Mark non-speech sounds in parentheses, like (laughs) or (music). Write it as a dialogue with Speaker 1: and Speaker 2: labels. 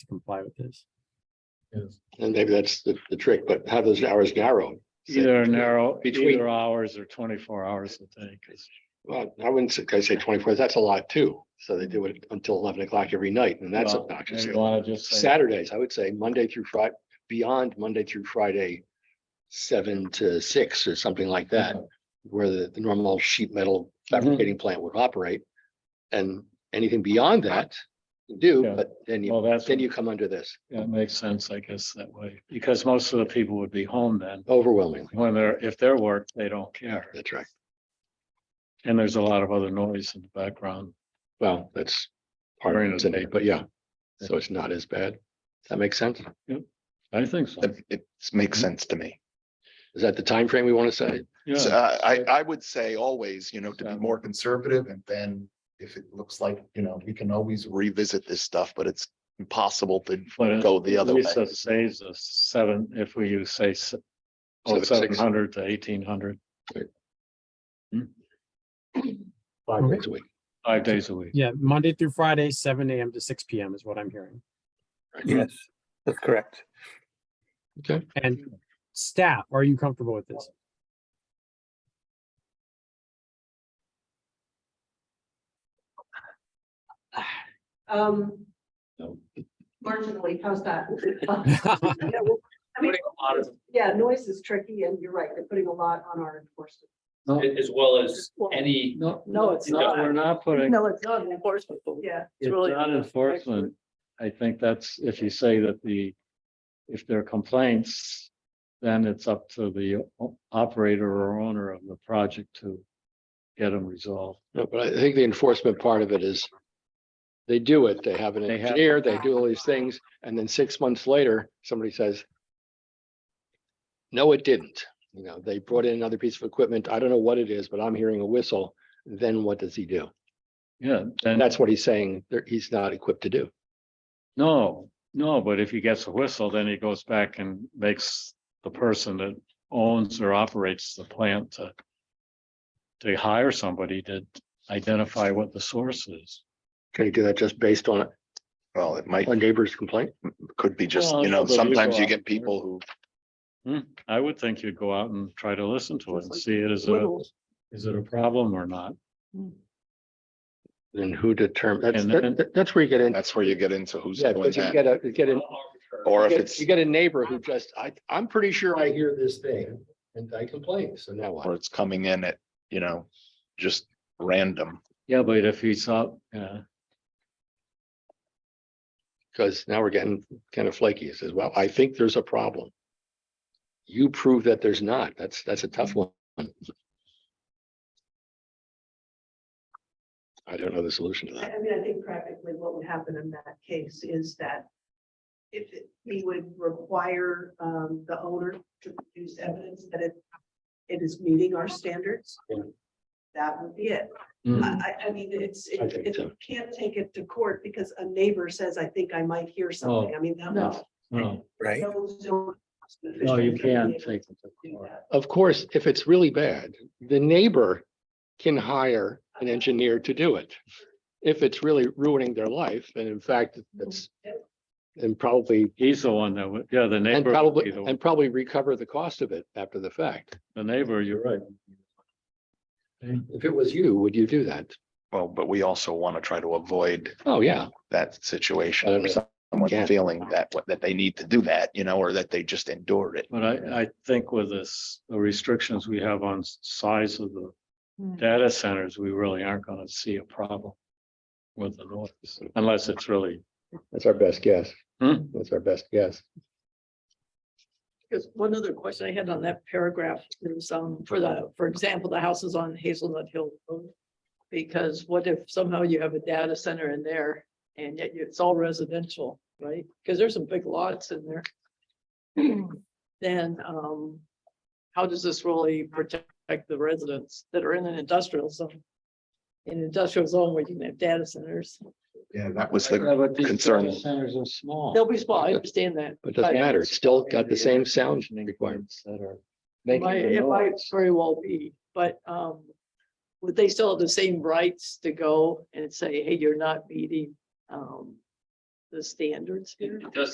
Speaker 1: to comply with this.
Speaker 2: Yes.
Speaker 3: And maybe that's the, the trick, but have those hours narrowed.
Speaker 2: Either narrow,
Speaker 3: Between-
Speaker 2: either hours or twenty-four hours, I think.
Speaker 3: Well, I wouldn't say, I say twenty-four, that's a lot too. So they do it until eleven o'clock every night and that's
Speaker 2: Well,
Speaker 3: obnoxious.
Speaker 2: maybe you wanna just say-
Speaker 3: Saturdays, I would say Monday through Friday, beyond Monday through Friday, seven to six or something like that, where the, the normal sheet metal
Speaker 2: Mm-hmm.
Speaker 3: fabricating plant would operate. And anything beyond that, you do,
Speaker 2: Yeah.
Speaker 3: but then you,
Speaker 2: Well, that's,
Speaker 3: then you come under this
Speaker 2: that makes sense, I guess, that way, because most of the people would be home then.
Speaker 3: overwhelmingly.
Speaker 2: When they're, if they're worked, they don't care.
Speaker 3: That's right.
Speaker 2: And there's a lot of other noise in the background.
Speaker 3: Well, that's part
Speaker 2: During
Speaker 3: of it
Speaker 2: the
Speaker 3: today,
Speaker 2: day.
Speaker 3: but yeah, so it's not as bad. Does that make sense?
Speaker 2: I think so.
Speaker 4: It, it makes sense to me.
Speaker 3: Is that the time frame we want to say?
Speaker 4: So
Speaker 2: Yeah,
Speaker 4: uh, I, I would say always, you know, to be more conservative and then if it looks like, you know, we can always revisit this stuff, but it's impossible to
Speaker 2: but it-
Speaker 4: go the other way.
Speaker 2: Lisa saves us seven, if we use say s- oh,
Speaker 3: Seven, six.
Speaker 2: 700 to eighteen hundred,
Speaker 3: Five days a week.
Speaker 2: five days a week.
Speaker 1: Yeah, Monday through Friday, seven AM to six PM is what I'm hearing.
Speaker 5: Yes, that's correct.
Speaker 3: Okay,
Speaker 1: And staff, are you comfortable with this?
Speaker 6: Um,
Speaker 2: No.
Speaker 6: marginally,
Speaker 2: (laughs)
Speaker 6: how's that? (laughs) Yeah, well, I mean,
Speaker 7: putting a lot of,
Speaker 6: yeah, noise is tricky and you're right, they're putting a lot on our enforcement.
Speaker 7: as well as any,
Speaker 2: No,
Speaker 7: No, it's
Speaker 2: no,
Speaker 7: not.
Speaker 2: We're not putting,
Speaker 6: No, it's not,
Speaker 7: enforcement, but
Speaker 6: yeah,
Speaker 7: it's
Speaker 2: it's
Speaker 7: really-
Speaker 2: not enforcement. I think that's, if you say that the, if there are complaints, then it's up to the o- operator or owner of the project to get them resolved.
Speaker 3: no, but I think the enforcement part of it is they do it, they have an
Speaker 2: They have-
Speaker 3: engineer, they do all these things, and then six months later, somebody says, no, it didn't. You know, they brought in another piece of equipment. I don't know what it is, but I'm hearing a whistle. Then what does he do?
Speaker 2: Yeah,
Speaker 3: And
Speaker 2: then,
Speaker 3: that's what he's saying, there- he's not equipped to do.
Speaker 2: no, no, but if he gets a whistle, then he goes back and makes the person that owns or operates the plant to to hire somebody to identify what the source is.
Speaker 3: Can he do that just based on
Speaker 4: Well, it might,
Speaker 3: a neighbor's complaint?
Speaker 4: could be just,
Speaker 2: Well,
Speaker 4: you know,
Speaker 2: but you
Speaker 4: sometimes
Speaker 2: go
Speaker 4: you
Speaker 2: out
Speaker 4: get
Speaker 2: there.
Speaker 4: people who,
Speaker 2: I would think you'd go out and try to listen to it and see it as a,
Speaker 7: little,
Speaker 2: is it a problem or not?
Speaker 3: Then who determines?
Speaker 2: And
Speaker 3: That's,
Speaker 2: then-
Speaker 3: that- that's where you get into,
Speaker 4: that's where you get into who's
Speaker 3: yeah,
Speaker 4: doing
Speaker 3: because you
Speaker 4: that.
Speaker 3: get a, you get an
Speaker 7: arbitrary.
Speaker 4: Or if
Speaker 3: You
Speaker 4: it's,
Speaker 3: get- You get a neighbor who just, I, I'm pretty sure I hear this thing and I complain, so now
Speaker 4: or
Speaker 3: what?
Speaker 4: it's coming in at, you know, just random.
Speaker 2: Yeah, but if he's up, yeah,
Speaker 3: Because now we're getting kind of flaky. It says, well, I think there's a problem. You prove that there's not. That's, that's a tough one. I don't know the solution to
Speaker 6: I,
Speaker 3: that.
Speaker 6: I mean, I think practically what would happen in that case is that if it- we would require, um, the owner to produce evidence that it, it is meeting our standards,
Speaker 3: Yeah.
Speaker 6: that would be it.
Speaker 2: Mm.
Speaker 6: I, I, I mean, it's, it,
Speaker 3: I think
Speaker 6: it-
Speaker 3: so.
Speaker 6: you can't take it to court because a neighbor says, I think I might hear something. I mean, that
Speaker 2: Oh, No.
Speaker 6: was.
Speaker 2: no,
Speaker 5: Right.
Speaker 2: no,
Speaker 6: No,
Speaker 2: you can't take it. to court.
Speaker 3: Of course, if it's really bad, the neighbor can hire an engineer to do it. If it's really ruining their life, and in fact, that's and probably
Speaker 2: He's the one that would, yeah, the
Speaker 3: And
Speaker 2: neighbor, would
Speaker 3: probably,
Speaker 2: be the
Speaker 3: and probably recover the cost of it after the fact.
Speaker 2: the neighbor, you're right.
Speaker 3: If it was you, would you do that?
Speaker 4: Well, but we also want to try to avoid
Speaker 3: Oh, yeah.
Speaker 4: that
Speaker 3: I
Speaker 4: situation.
Speaker 3: understand. Yeah.
Speaker 4: Someone feeling that, that they need to do that, you know, or that they just endured it.
Speaker 2: But I, I think with this, the restrictions we have on s- size of the data centers, we really aren't gonna see a problem with the noise, unless it's really,
Speaker 3: That's our best guess.
Speaker 2: Hmm.
Speaker 3: That's our best guess.
Speaker 7: Because one other question I had on that paragraph is, um, for the, for example, the houses on Hazelnut Hill Road. Because what if somehow you have a data center in there and yet it's all residential, right? Because there's some big lots in there. Then, um, how does this really protect the residents that are in an industrial zone? In an industrial zone where you can have data centers,
Speaker 4: Yeah, that was the
Speaker 2: Yeah, but these
Speaker 4: concern.
Speaker 2: data Centers are small.
Speaker 7: they'll be small, I understand that.
Speaker 3: But it doesn't
Speaker 7: Right.
Speaker 3: matter. It's still got the same sound
Speaker 2: Conditioning
Speaker 3: requirement.
Speaker 2: points That are
Speaker 7: It
Speaker 2: making
Speaker 7: might,
Speaker 2: the
Speaker 7: it might
Speaker 2: noise.
Speaker 7: very well be, but um, would they still have the same rights to go and say, hey, you're not meeting um.
Speaker 8: the standards here?
Speaker 7: It does